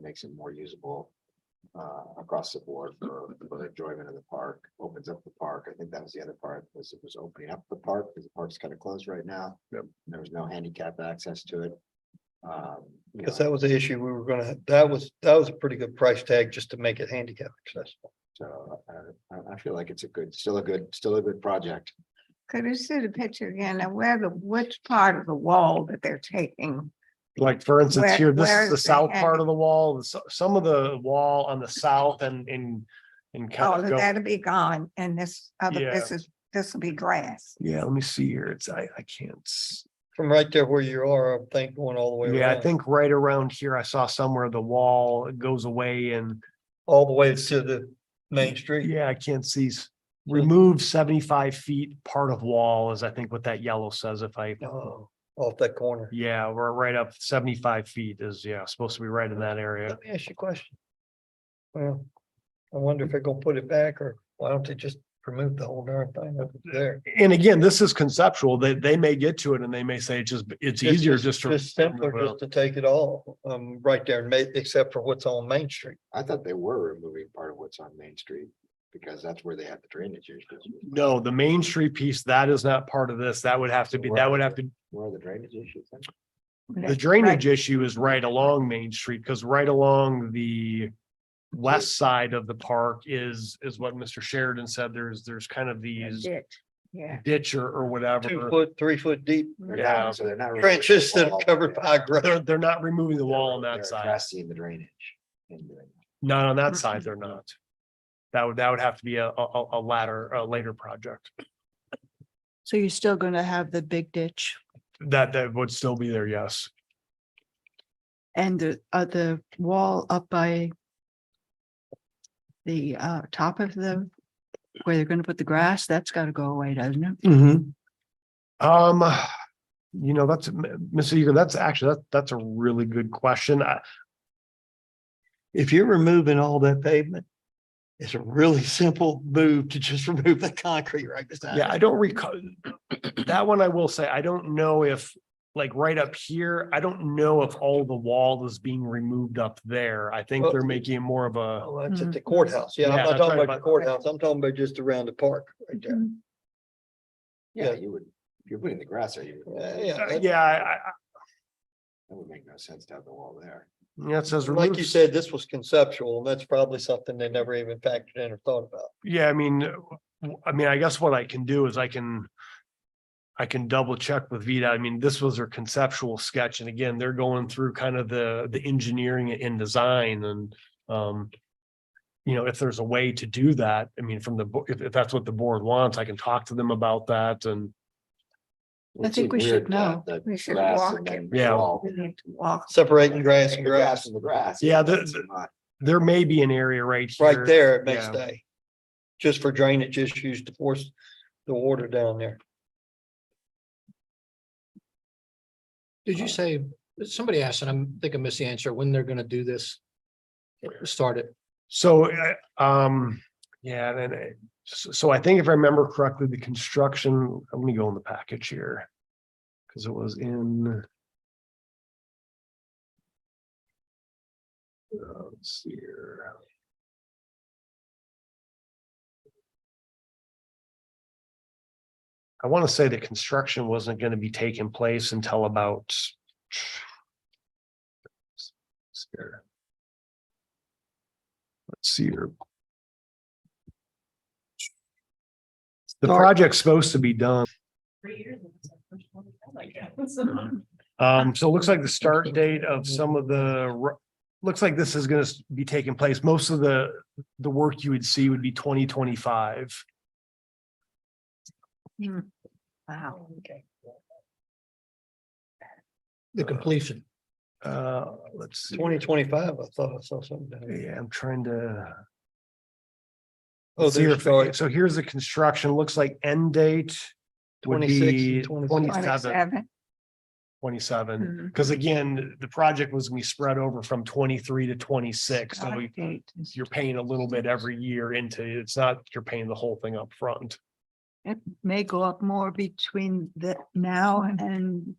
makes it more usable. Uh, across the board for, for the enjoyment of the park, opens up the park. I think that was the other part, was it was opening up the park, because the park's kind of closed right now. Yep. There was no handicap access to it. Um, you Because know, that was the issue we were gonna, that was, that was a pretty good price tag just to make it handicap accessible. so, uh, I, I feel like it's a good, still a good, still a good project. Could you see the picture again and where the, which part of the wall that they're taking? Like, for instance, Where- here, this where is is the the south part end? of the wall, the so- some of the wall on the south and in. In All kind of of go, that'll Oh, be gone and this other, Yeah. this is, this will be grass. yeah, let me see here. It's, I, I can't. s- From right there where you are, I think going all the way. Yeah, I around, think right around here, I saw somewhere the wall goes away and, All the way to the main street. yeah, I can't see. s- Remove seventy-five feet part of wall is, I think, what that yellow says if I. Oh, off that corner. Yeah, we're right up seventy-five feet is, yeah, supposed to be right in that area. Let me ask you a question. Well, I wonder if they're gonna put it back or why don't they just remove the whole darn thing up there? And again, this is conceptual. They, they may get to it and they may say it's just, it's Just- easier just to. Just simpler just to take it all, um, right there and make, except for what's on Main Street. I thought they were removing part of what's on Main Street, because that's where they have the drainage issues. No, the Main Street piece, that is not part of this. That would have to be, that would have to, Where are the drainage issues? then? the drainage issue is right along Main Street, because right along the. West side of the park is, is what Mr. Sheridan said. There's, there's kind of these Ditch, yeah. ditch or, or Two whatever. foot, three foot deep They're Yeah. not- So they're not. removing the trenches that are wall, covered they're- by grass. They're, they're not removing the they're- wall on they're that side. Addressing the drainage. and doing it. Not on that Mhm. side, they're not. That would, that would have to be a, a, a latter, a later project. So you're still gonna have the big ditch That, that would still be there, yes. and the, uh, the wall up by the, uh, top of the, where they're gonna put the grass, that's gotta go away, doesn't it? Mm-hmm. Um, you know, that's, M- Mr. Eager, that's actually, that, that's a really good question. I, if you're removing all that pavement, it's a really simple move to just remove the concrete right beside. yeah, it. I don't recall. That one I will say, I don't know if, like, right up here, I don't know if all the wall is being removed up there. I think they're Well- making more of a, Oh, that's at Mhm. the courthouse. Yeah, Yeah, I'm that's not talking right, about the but- courthouse. I'm talking about just around the park right there. Yeah, Yeah. you would, if you're putting the grass there, you. would- Yeah, yeah. Uh, that- yeah, I, I, That would make no sense to have the wall there. yeah, it says. Like remove you s- said, this was conceptual and that's probably something they never even factored in or thought about. Yeah, I mean, uh, w- I mean, I guess what I can do is I can. I can double check with Vida. I mean, this was their conceptual sketch and again, they're going through kind of the, the engineering and design and, um. You know, if there's a way to do that, I mean, from the, bo- if, if that's what the board wants, I can talk to them about that and, I think we should know. We should walk it. Yeah. We need to walk. Separating grass and Grass grass, and the grass. Yeah, the- that's the- not- there may be an area right here. right there, it may Yeah. stay. Just for drainage issues to force the water down there. Did you say, somebody asked, and I'm thinking I missed the answer, when they're gonna do this? Start it. So, uh, um, yeah, then, uh, so so I think if I remember correctly, the construction, let me go in the package here. Cause it was in. Uh, Let's see here. I want to say the construction wasn't going to be taking place until about. Let's see here. The project's supposed to be done. Um, so it looks like the start date of some of the, ro- looks like this is gonna s- be taking place. Most of the, the work you would see would be twenty twenty-five. Wow. The completion. Uh, let's see. Twenty twenty-five, I thought I saw something. down there. Yeah, I'm trying to. Oh, see there's if- So here's the construction, looks like end date would 26 and be 27. twenty-seven, 27. twenty-seven. Mhm. Because again, the project was gonna be spread over from twenty-three to twenty-six, so we- Update is- you're paying a little bit every year into, it's not, you're paying the whole thing up front. It may go up more between the now and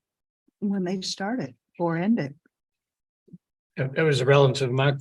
when they start it or end it. It it was irrelevant to my